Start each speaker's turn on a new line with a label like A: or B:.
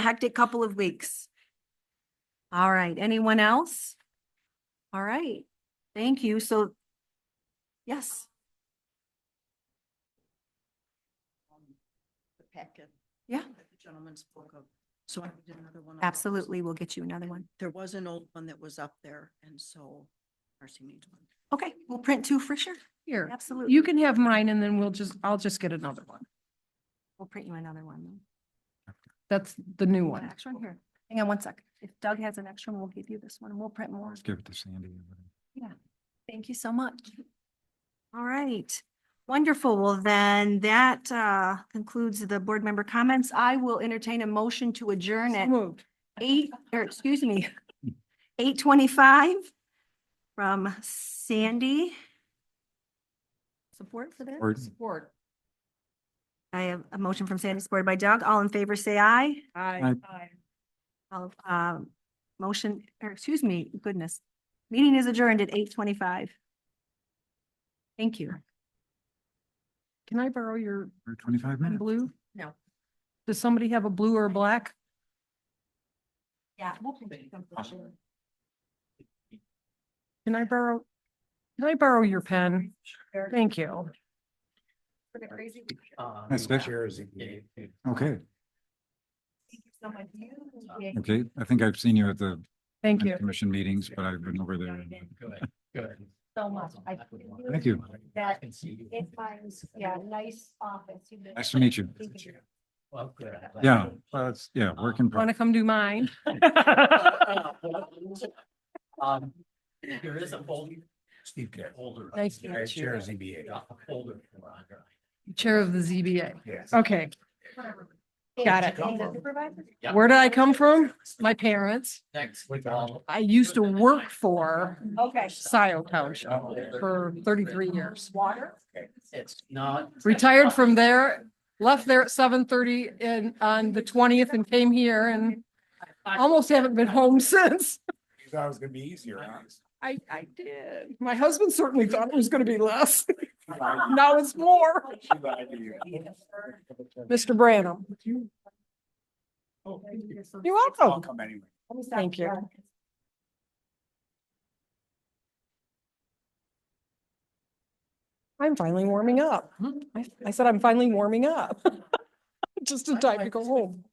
A: hectic couple of weeks. All right, anyone else? All right, thank you. So, yes,
B: um, the packet.
A: Yeah.
B: that The gentleman spoke of, so I did another one. of those.
A: absolutely. We'll get you another one.
B: There was an old one that was up there, and so Marcy needs one.
A: Okay, we'll print two for sure.
C: Here,
A: Absolutely.
C: you can have mine and then we'll just, I'll just get another one.
A: We'll print you another one.
C: That's the new
A: An
C: one.
A: extra one here. Hang on one sec. If Doug has an extra one, we'll give you this one and we'll print more.
D: Let's give it to Sandy. and let him-
A: Thank you so much. All right, wonderful. Well, then that uh concludes the board member comments. I will entertain a motion to adjourn
C: So
A: at
C: Moved.
A: eight, or excuse me, eight twenty-five from Sandy. Support for that?
D: Or
C: Support.
A: I have a motion from Sandy, supported by Doug. All in favor, say aye.
C: Aye.
A: All, um, motion, or excuse me, goodness. Meeting is adjourned at eight twenty-five. Thank you.
C: Can I borrow your
D: or twenty-five
C: pen
D: minutes.
C: blue?
B: No.
C: Does somebody have a blue or a black?
A: Yeah.
C: Can I borrow? Can I borrow your pen? Thank you.
D: That's good. Okay, okay. I think I've seen you at the
C: Thank you.
D: commission meetings, but I've been over there.
E: Good, good.
A: So much. I
D: Thank you.
A: That
E: I can see you.
A: It finds, yeah, nice office. You know.
D: Nice to meet you.
E: Well, good. I'm glad.
D: Yeah, well, it's, yeah, work in
C: Want
D: progress.
C: to come do mine?
E: Um, there is a folder. Steve Care. Older.
C: Nice to meet you.
E: Chair of ZBA. Yeah, Older.
C: Chair of the ZBA.
E: Yes.
C: Okay, Got it.
E: Yeah.
C: where did I come from? My parents.
E: Next. with all-
C: I used to work for
A: Okay.
C: Scioto Township for thirty-three years.
A: Water?
E: It's not.
C: retired from there, left there at seven thirty and on the twentieth and came here and almost haven't been home since.
F: You thought it was gonna be easier, huh?
C: I, I did. My husband certainly thought it was gonna be less. Now it's more.
F: She lied to you.
C: Mr. Branham,
F: Oh, thank you.
C: you're
F: I'll
C: welcome.
F: come anyway.
C: Thank you. I'm finally
E: Hm?
C: warming up. I, I said I'm finally warming up. Just in time to go home.